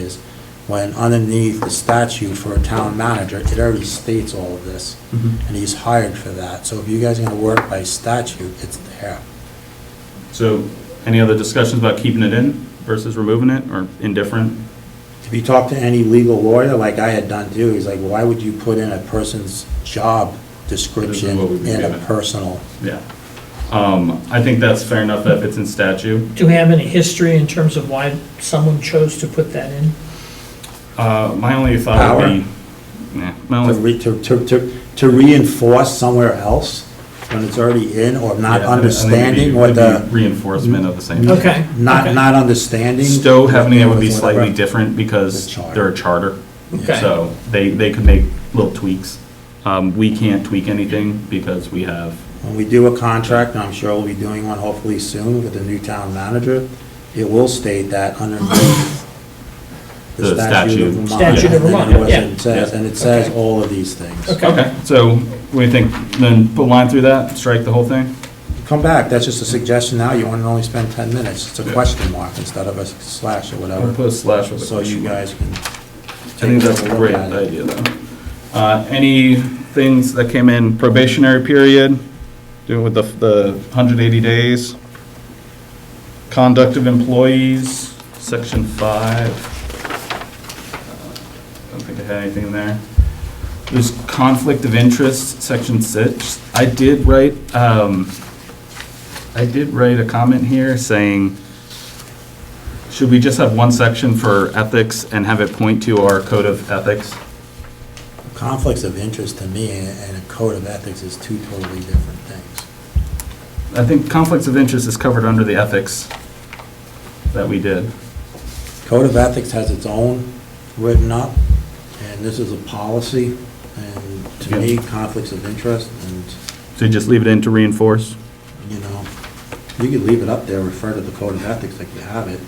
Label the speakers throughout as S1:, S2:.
S1: is, when underneath the statute for a town manager, it already states all of this,
S2: Mhm.
S1: and he's hired for that. So if you guys are gonna work by statute, it's there.
S2: So, any other discussions about keeping it in versus removing it, or indifferent?
S1: If you talk to any legal lawyer, like I had done too, he's like, why would you put in a person's job description
S2: what we've been
S1: in a
S2: given.
S1: personal?
S2: Yeah. Um, I think that's fair enough that if it's in statute.
S3: Do we have any history in terms of why someone chose to put that in?
S2: Uh, my only thought would be. Yeah, my
S1: To
S2: only,
S1: re- To, to, to, to reinforce somewhere else when it's already in or not
S2: Yeah, I think- I think it'd be-
S1: understanding what
S2: it'd be
S1: the,
S2: Reinforcement of the same.
S3: Okay.
S1: not,
S3: okay.
S1: not understanding.
S2: Stowe having it would be
S1: Whatever.
S2: slightly different
S1: The
S2: because
S1: charter.
S2: they're a charter.
S3: Okay.
S2: So they, they could make little tweaks. Um, we can't tweak anything because we have,
S1: When we do a contract, and I'm sure we'll be doing one hopefully soon with the new town manager, it will state that underneath
S2: The
S1: the statute of
S2: statute.
S1: Vermont.
S3: Statute of
S1: and
S3: Vermont,
S1: it was-
S3: yeah.
S1: It says, and it says all of these things.
S3: Okay.
S2: okay, so what do you think? Then put a line through that, strike the whole thing?
S1: Come back, that's just a suggestion now, you want to only spend 10 minutes, it's a
S2: Yeah.
S1: question mark instead of a slash or
S2: Or
S1: whatever,
S2: put a slash with a
S1: so you
S2: question mark.
S1: guys can.
S2: I think that's a great idea though. Uh, any things that came in probationary period, doing with the, the hundred eighty days? Conduct of employees, section five. Uh, I don't think I had anything in there. There's conflict of interest, section six. I did write, um, I did write a comment here saying, should we just have one section for ethics and have it point to our code of ethics?
S1: Conflicts of interest to me and- and a code of ethics is two totally different things.
S2: I think conflicts of interest is covered under the ethics that we did.
S1: Code of Ethics has its own written up, and this is a policy, and to me, conflicts of interest, and,
S2: So you just leave it in to reinforce?
S1: you know, you could leave it up there, refer to the Code of Ethics like you have it,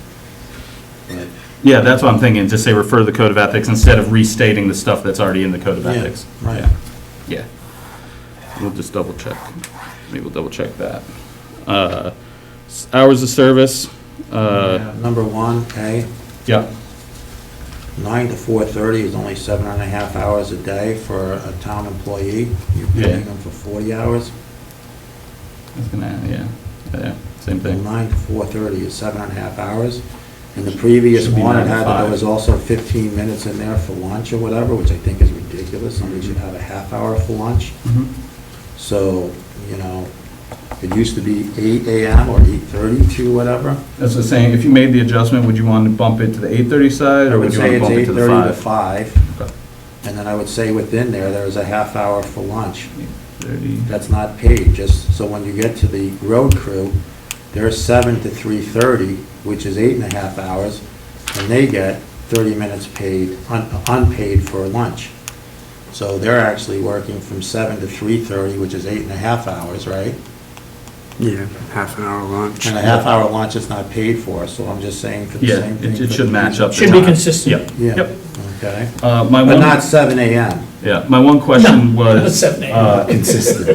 S1: but
S2: Yeah, that's what I'm thinking, just say refer to the code of ethics instead of restating the stuff that's already in the code of
S1: Yeah,
S2: ethics.
S1: right.
S2: Yeah. Yeah. We'll just double check, maybe we'll double check that. Uh, s- Hours of service, uh,
S1: number one, A,
S2: yeah,
S1: nine to four-thirty is only seven and a half hours a day for a town employee. You're
S2: Yeah.
S1: paying them for forty hours.
S2: I was gonna, yeah, yeah, same
S1: Well,
S2: thing.
S1: nine to four-thirty is seven and a half hours. And the previous
S2: Should be
S1: one, it
S2: nine to
S1: had,
S2: five.
S1: there was also fifteen minutes in there for lunch or whatever, which I think is ridiculous. Somebody should have a half hour for lunch.
S2: Mhm.
S1: So, you know, it used to be eight AM or eight-thirty to whatever.
S2: That's the saying, if you made the adjustment, would you want to bump it to the 8:30 side,
S1: I
S2: or would
S1: would
S2: you
S1: say
S2: want to
S1: it's
S2: bump it to the
S1: eight-thirty to
S2: 5?
S1: five,
S2: Okay.
S1: and then I would say within there, there is a half hour for lunch.
S2: 30.
S1: That's not paid, just, so when you get to the road crew, they're seven to three-thirty, which is eight and a half hours, and they get thirty minutes paid, un- unpaid for lunch. So they're actually working from seven to three-thirty, which is eight and a half hours, right?
S4: Yeah, half an hour lunch.
S1: And a half-hour lunch is not paid for, so I'm just saying for the
S2: Yeah,
S1: same thing.
S2: it- it
S1: for
S2: should
S1: the-
S2: match up. the
S3: Should be
S2: time.
S3: consistent.
S2: Yep,
S1: Yeah,
S2: yep.
S1: okay.
S2: Uh, My
S1: But not
S2: one,
S1: seven AM.
S2: yeah, my one question
S3: No, not
S2: was.
S3: seven, eight.
S2: uh,
S1: Consistent.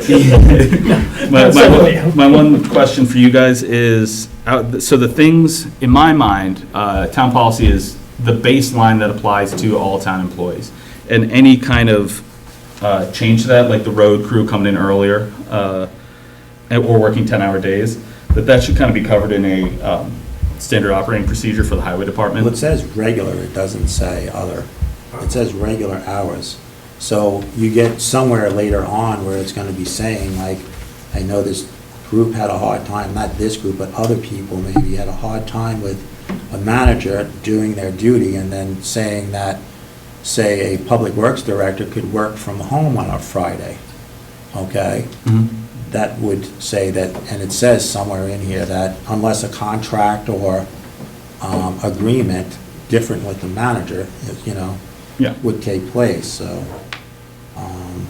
S2: My,
S3: That's
S2: my,
S3: not
S2: one-
S3: real.
S2: my one question for you guys is, out- so the things, in my mind, uh, town policy is the baseline that applies to all town employees. And any kind of, uh, change to that, like the road crew coming in earlier, uh, and- or working ten-hour days, that that should kind of be covered in a, um, standard operating procedure for the highway department.
S1: Well, it says regular, it doesn't say other. It says regular hours. So you get somewhere later on where it's gonna be saying, like, I know this group had a hard time, not this group, but other people maybe had a hard time with a manager doing their duty and then saying that, say, a public works director could work from home on a Friday, okay?
S2: Mhm.
S1: that would say that, and it says somewhere in here that unless a contract or um, agreement different with the manager, you know,
S2: Yeah.
S1: would take place, so, um,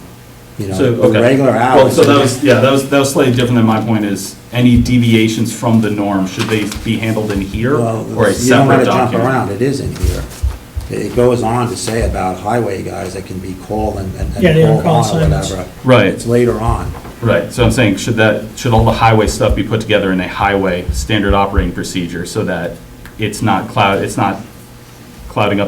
S1: you know,
S2: So,
S1: the
S2: okay.
S1: regular
S2: Well,
S1: hours.
S2: so that was, yeah, that was, that was slightly different than my point is, any deviations from the norm, should they be handled in here
S1: Well,
S2: or a
S1: You don't want
S2: separate
S1: to jump around, it
S2: document?
S1: is in here. It it goes on to say about highway guys that can be called and and-
S3: Yeah, they don't
S1: and
S3: call
S1: called on or
S3: assignments.
S1: whatever.
S2: Right.
S1: It's later on.
S2: Right, so I'm saying, should that, should all the highway stuff be put together in a highway standard operating procedure so that it's not cloud, it's not clouding up